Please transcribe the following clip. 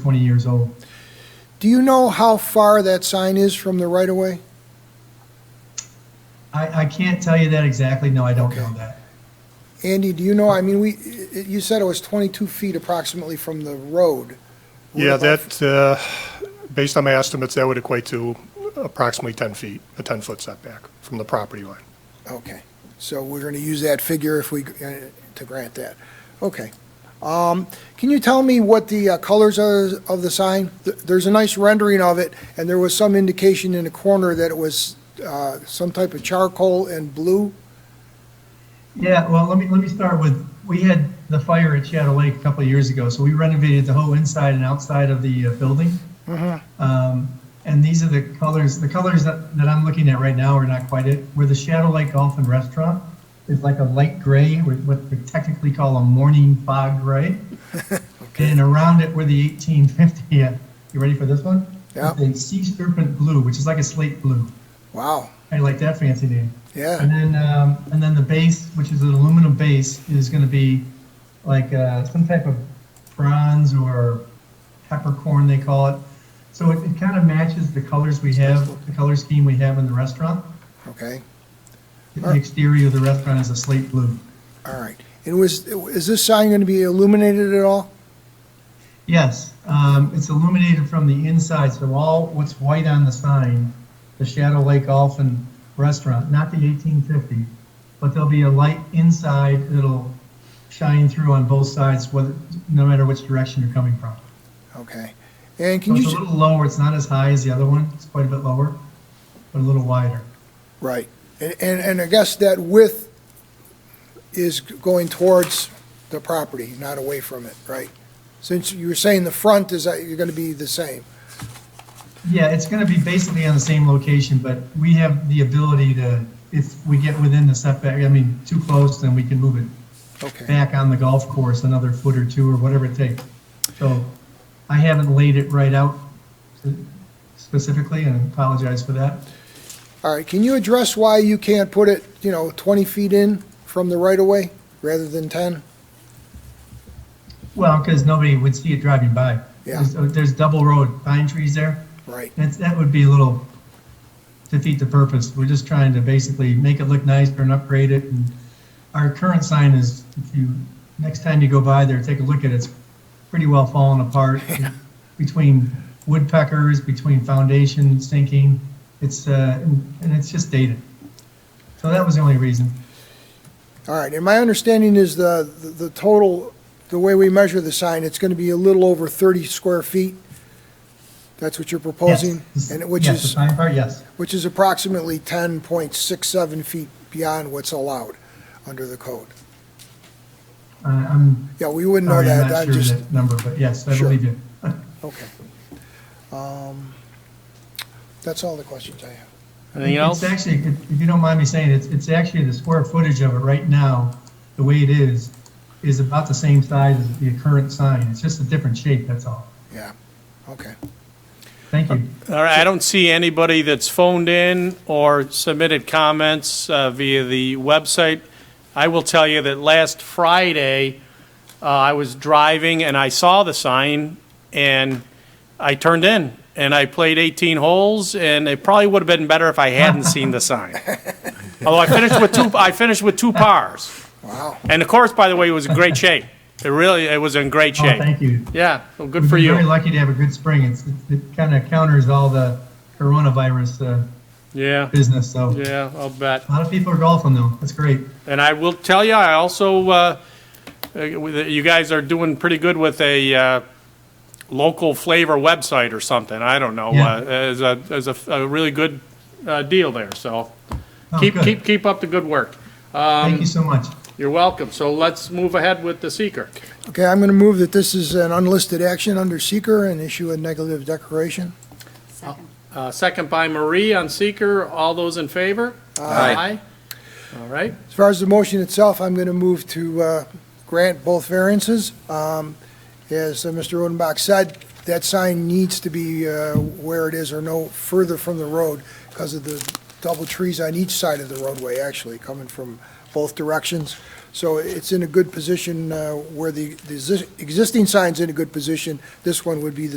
20 years old. Do you know how far that sign is from the right-of-way? I, I can't tell you that exactly. No, I don't know that. Andy, do you know, I mean, we, i- i- you said it was 22 feet approximately from the road. What Yeah, about- that, uh, based on my estimates, that would equate to approximately 10 feet, a 10-foot setback from the property line. Okay, so we're going to use that figure if we, uh, to grant that. Okay. Um, Can you tell me what the uh, colors are of the sign? Th- There's a nice rendering of it, and there was some indication in the corner that it was uh, some type of charcoal and blue. Yeah, well, let me, let me start with, we had the fire at Shadow Lake a couple of years ago, so we renovated the whole inside and outside of the uh, building. Um, and these are the colors, the colors that, that I'm looking at right now are not quite it. Where the Shadow Lake Golf and Restaurant is like a light gray, with what we technically call a morning fog gray. And around it were the 1850, yeah, you ready for this one? Yeah. It's a sea serpent blue, which is like a slate blue. Wow, I like that fancy name. And yeah, then, um, and then the base, which is an aluminum base, is gonna be like, uh, some type of bronze or peppercorn, they call it. So it, it kind of matches the colors we have, the color scheme we have in the restaurant. okay, The exterior of the restaurant is a slate blue. all right. And was, is this sign going to be illuminated at all? Yes, um, it's illuminated from the inside, so all what's white on the sign, the Shadow Lake Golf and Restaurant, not the eighteen fifty, but there'll be a light inside that'll shine through on both sides, whether, no matter which direction you're coming from. Okay. And So can you? it's a ju- little lower, it's not as high as the other one, it's quite a bit lower, but a little wider. Right. And, and and I guess that width is going towards the property, not away from it, right? Since you were saying the front is, that you're going to be the same. Yeah, it's gonna be basically on the same location, but we have the ability to, if we get within the setback, I mean, too close, then we can move it Okay, back on the golf course another foot or two or whatever it takes. So I haven't laid it right out specifically and I apologize for that. all right. Can you address why you can't put it, you know, 20 feet in from the right-of-way rather than 10? Well, because nobody would see it driving by. Yeah. There's- uh, There's double road pine trees there. Right, That's, that would be a little defeat the purpose. We're just trying to basically make it look nicer and upgrade it. And Our current sign is, if you, next time you go by there, take a look at it, it's pretty well falling apart. Between woodpeckers, between foundation sinking, it's, uh, and and it's just dated. So that was the only reason. all right. And my understanding is the, the- the total, the way we measure the sign, it's going to be a little over 30 square feet. That's what you're proposing? Yes. and which Yes, the is. sign part, yes. which is approximately 10.67 feet beyond what's allowed under the code. Uh, I'm Yeah, we wouldn't know sorry, I'm Oh, that, not I'm sure of just, that number, but yes, I Sure. believe you. okay. Um, That's all the questions I have. Anything else? It's actually, if if you don't mind me saying, it's, it's actually the square footage of it right now, the way it is, is about the same size as the current sign. It's just a different shape, that's all. Yeah, okay. Thank you. All right, I don't see anybody that's phoned in or submitted comments uh, via the website. I will tell you that last Friday, uh, I was driving and I saw the sign and I turned in and I played 18 holes and it probably would have been better if I hadn't seen the sign. Although I finished with two, I finished with two pars. Wow, And the course, by the way, was in great shape. It really, it was in great Oh, shape. thank you. Yeah, well, good for We've been Very you. lucky to have a good spring. It's, it- it kind of counters all the coronavirus uh, Yeah, business, so. A yeah, I'll bet. lot of people are golfing though. That's great. And I will tell you, I also, uh, uh, you guys are doing pretty good with a uh, local flavor website or something, I don't know, Yeah. uh, as a, as a a really good uh, deal there, so Oh, keep, good. keep, keep up the good work. Um, Thank you so much. You're welcome, so let's move ahead with the seeker. okay, I'm going to move that this is an unlisted action under seeker and issue a negative declaration. Uh, Second by Marie on seeker, all those in favor? Aye. All right, As far as the motion itself, I'm going to move to uh, grant both variances. Um, As uh, Mr. Odenbach said, that sign needs to be uh, where it is or no further from the road because of the double trees on each side of the roadway, actually, coming from both directions. So it's in a good position uh, where the the exi- existing sign's in a good position. This one would be the